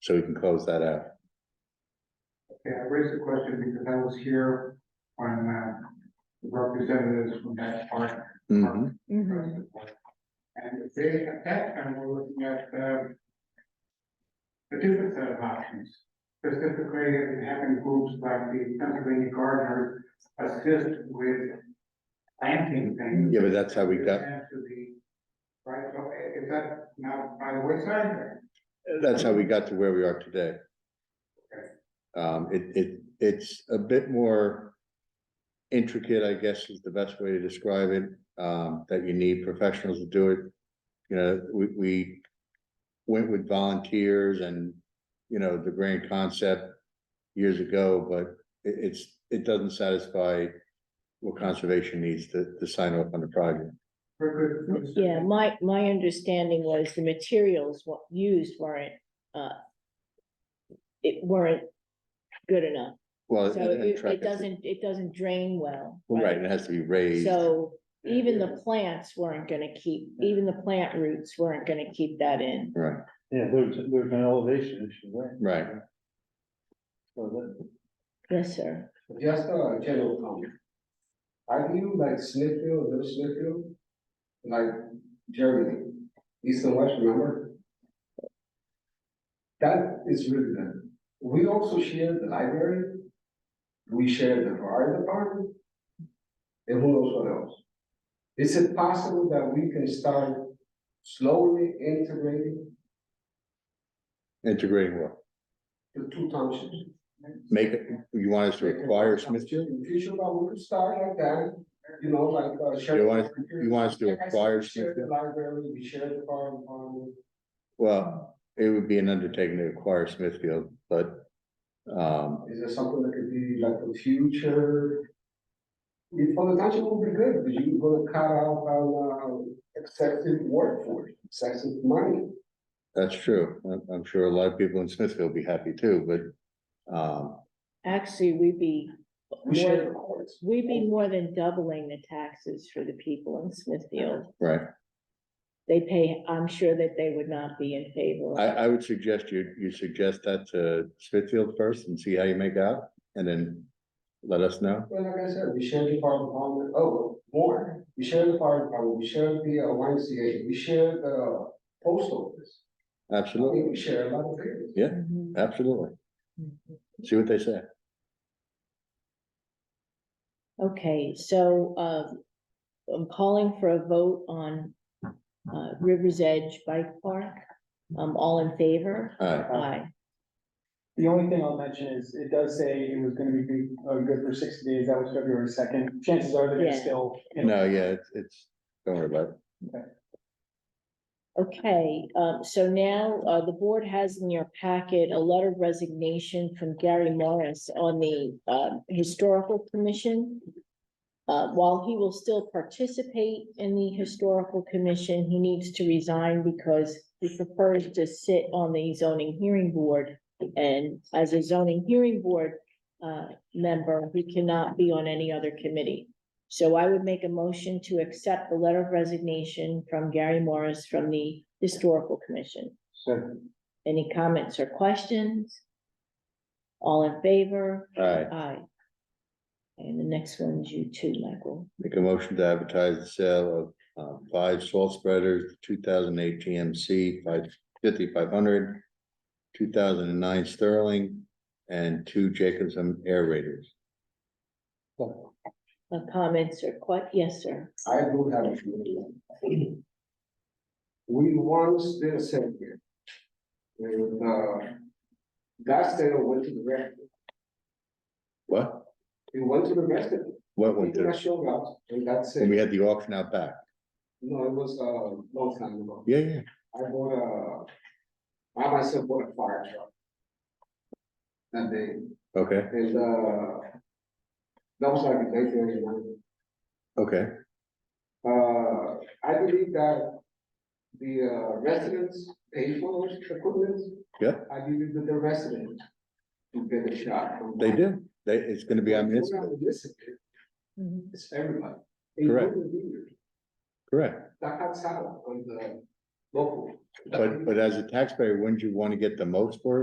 so we can close that out. Yeah, I raised the question because I was here when, uh, the representatives from that park. Mm-hmm. Mhm. Mhm. And they, at that time, were looking at, um, a different set of options. Specifically, having groups like the Pennsylvania Gardeners assist with planting things. Yeah, but that's how we got, To the, right, so eh, is that not by the wayside? that's how we got to where we are today. Um, it, it, it's a bit more intricate, I guess is the best way to describe it, um, that you need professionals to do it. You know, we, we went with volunteers and, you know, the grand concept years ago, but it, it's, it doesn't satisfy what conservation needs to, to sign off on the project. For good. Yeah, my, my understanding was the materials wa- used weren't, uh, it weren't good enough. Well, So and- and it, track it it. doesn't, it doesn't drain well. right, and it has to be raised. So even the plants weren't gonna keep, even the plant roots weren't gonna keep that in. Right, Yeah, there's, there's an elevation issue, right? right. So that, Yes, sir. Just a general comment. Are you like Smithfield, Little Smithfield? Like Germany, East and West, remember? That is really good. We also share the library. We share the fire department. And who knows what else? Is it possible that we can start slowly integrating Integrating what? the two townships? Make, it- you want us to require Smithfield? In the future, but we could start like that, you know, like, uh. share- You want us- You want us to require Share the Smithfield? library, we share the fire department. Well, it would be an undertaking to acquire Smithfield, but, um, Is there something that could be like the future? If for the township would be good, because you're gonna cut out, uh, excessive workforce, excessive money. that's true. I'm, I'm sure a lot of people in Smithfield will be happy too, but, um, Actually, we'd be, We share the courts. we'd be more than doubling the taxes for the people in Smithfield. right. They pay, I'm sure that they would not be in favor. of I, it. I would suggest you, you suggest that to Smithfield first and see how you make out and then let us know. Well, like I said, we share the fire department, oh, more, we share the fire department, we share the uh, YMCA, we share the uh, post office. I Absolutely, mean, we share a lot of things. Mhm. absolutely. See what they say. Okay, so, um, I'm calling for a vote on, uh, River's Edge Bike Park. Um, all in favor? All right, Aye. Uh, The only thing I'll mention is, it does say it was gonna be good, uh, good for sixty days, that was February second, chances are they're Yeah. gonna still. you know, no, yeah, it's, it's, don't worry about it. Okay, um, so now, uh, the board has in your packet a letter of resignation from Gary Morris on the, uh, Historical Commission. Uh, while he will still participate in the Historical Commission, he needs to resign because he prefers to sit on the zoning hearing board. And as a zoning hearing board, uh, member, he cannot be on any other committee. So I would make a motion to accept the letter of resignation from Gary Morris from the Historical Commission. so Any comments or questions? All in favor? All right, Aye. And the next one's you too, Michael. Make a motion to advertise the sale of uh, five salt spreaders, two thousand eight GMC, five fifty, five hundred, two thousand and nine Sterling, and two Jacobson air raiders. Uh, Comments or que- yes, sir. I do have a few. We once did a survey. And, uh, last day I went to the rest, What? we went to the rest of it. What We went did Mm-hmm. there? not show up, and that's And it. we had the auction out back. No, it was a long time ago. Yeah, yeah. I bought a, I myself bought a fire truck. That day, Okay, and, uh, that was like nineteen ninety-nine. okay. Uh, I believe that the uh, residents pay for those equipment. Yeah. I believe that the residents do get a shot. from They that. do. They, it's gonna be on It's this, not municipal, Mhm. It's everybody. Correct. including the leaders. correct. That cuts out on the local. But, but as a taxpayer, wouldn't you wanna get the most for it?